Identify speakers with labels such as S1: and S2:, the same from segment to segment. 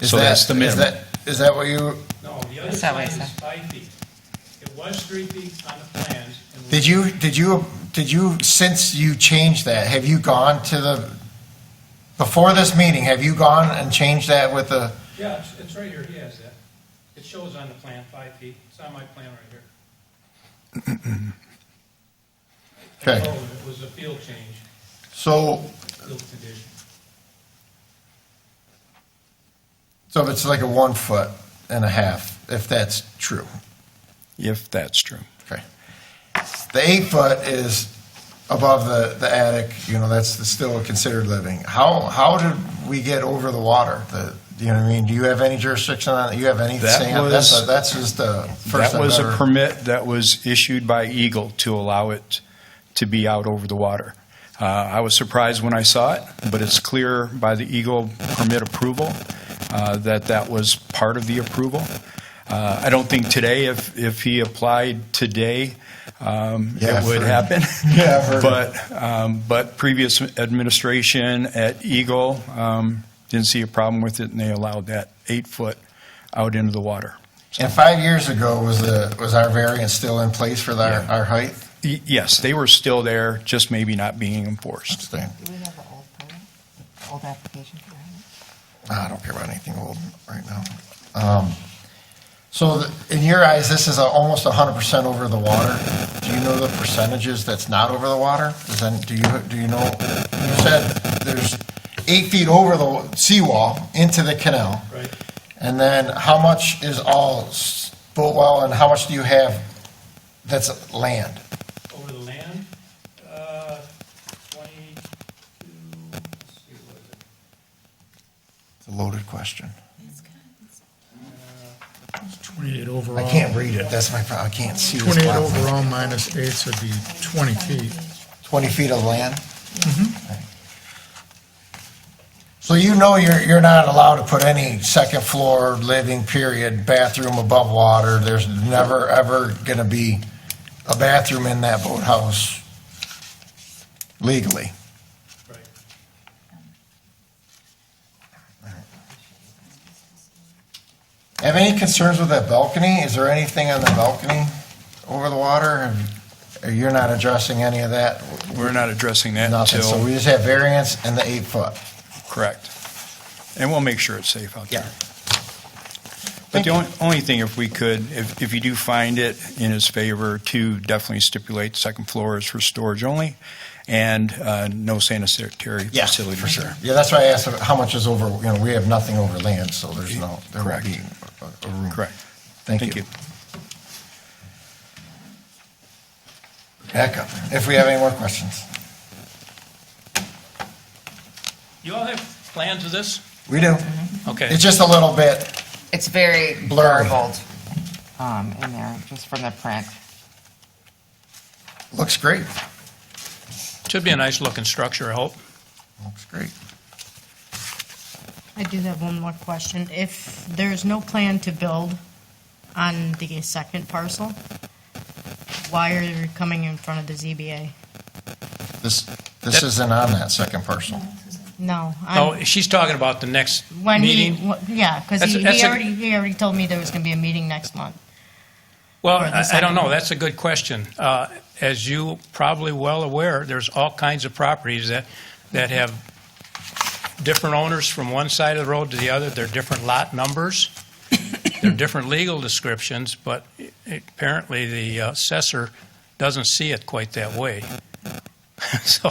S1: Is
S2: So
S1: that-
S2: that's the
S1: is
S2: minimum.
S1: that- Is that what you,
S3: No, the other
S4: That's not what
S3: side
S4: I
S3: is
S4: said.
S3: five feet. It was three feet on the plans. and we-
S1: did you, did you, did you, since you changed that, have you gone to the, before this meeting, have you gone and changed that with the,
S3: Yeah, it's, it's right here, he has that. It shows on the plan, five feet, it's on my plan right here. I
S1: Okay.
S3: told him Oh, it was a field change,
S1: so,
S3: field condition.
S1: so if it's like a one foot and a half, if that's true,
S2: if that's true.
S1: okay? The eight foot is above the, the attic, you know, that's the- still considered living. How, how did we get over the water? The, you know what I mean? Do you have any jurisdiction on it? You have any
S2: That
S1: say on that's
S2: was-
S1: a- That's just the first.
S2: That was
S1: I've
S2: a
S1: ever-
S2: permit that was issued by Eagle to allow it to be out over the water. Uh, I was surprised when I saw it, but it's clear by the Eagle permit approval uh, that that was part of the approval. Uh, I don't think today, if, if he applied today, um,
S1: Yeah,
S2: it would
S1: for-
S2: happen.
S1: Yeah, I've heard of
S2: But, um, but previous administration at Eagle um, didn't see a problem with it, and they allowed that eight foot out into the water.
S1: And five years ago, was the, was our variance still in place for our, our height?
S2: Y- Yes, they were still there, just maybe not being enforced.
S4: Do we have the old permit, old application for that?
S1: I don't care about anything old right now. Um, So the- in your eyes, this is a- almost hundred percent over the water. Do you know the percentages that's not over the water? Does then, do you, do you know? You said there's eight feet over the seawall into the canal.
S3: Right.
S1: And then how much is all s- boat well and how much do you have that's land?
S3: Over the land, uh, twenty-two, let's see, what is it?
S1: It's a loaded question.
S5: Twenty-eight
S1: I
S5: overall.
S1: can't read it, that's my problem, I can't see. this
S5: Twenty-eight
S1: block.
S5: overall minus eight, so it'd be twenty feet.
S1: 20 feet of land? Okay. So you know you're, you're not allowed to put any second floor living period bathroom above water. There's never, ever going to be a bathroom in that boathouse legally.
S3: Right.
S1: Have any concerns with that balcony? Is there anything on the balcony over the water? Or You're not addressing any of that?
S2: We're not addressing that
S1: Nothing, so
S2: until,
S1: we just have variance and the eight foot.
S2: correct. And we'll make sure it's safe out there.
S1: Yeah.
S2: But the only, only thing, if we could, if, if you do find it in his favor, to definitely stipulate second floor is for storage only, and uh, no sanitary
S1: Yeah,
S2: facility.
S1: for sure. Yeah, that's why I asked how much is over, you know, we have nothing over land, so there's no, there won't
S2: Correct.
S1: be a- a room.
S2: Correct.
S1: Thank you. Back up, if we have any more questions.
S3: You all have plans of this?
S1: We do.
S3: Okay.
S1: It's just a little bit,
S4: It's very
S1: Blurry.
S4: blurbled um, in there, just from the print.
S1: looks great,
S3: Should be a nice-looking structure, I hope.
S1: looks great.
S6: I do have one more question. If there's no plan to build on the second parcel, why are you coming in front of the ZBA?
S1: This, this isn't on that second parcel.
S6: No.
S3: No,
S6: I'm-
S3: Oh, she's talking about the next
S6: When he,
S3: meeting.
S6: wh- yeah, because
S3: That's-
S6: he
S3: that's
S6: he
S3: a-
S6: already, he already told me there was going to be a meeting next month.
S3: Well,
S6: Or the
S3: I I don't
S6: second
S3: know,
S6: one.
S3: that's a good question. Uh, As you probably well aware, there's all kinds of properties that, that have different owners from one side of the road to the other, they're different lot numbers, they're different legal descriptions, but apparently the assessor doesn't see it quite that way. So,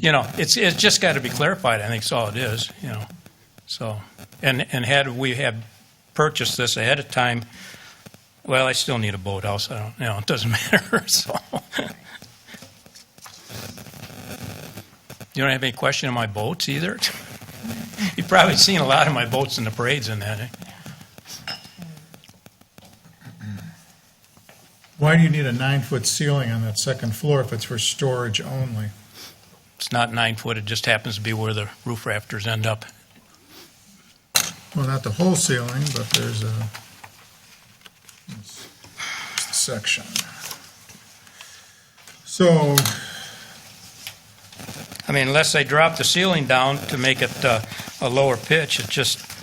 S3: you know, it's, it's just got to be clarified, I think is all it is, you know, so. And, and had we had purchased this ahead of time, well, I still need a boathouse. I don't, you know, it doesn't matter. So, you don't have any question on my boats either. You've probably seen a lot of my boats in the parades and that. eh?
S5: Why do you need a nine-foot ceiling on that second floor if it's for storage only?
S3: It's not nine foot. It just happens to be where the roof rafters end up.
S5: Well, not the whole ceiling, but there's a section. So,
S3: I mean, unless they drop the ceiling down to make it uh, a lower pitch, it just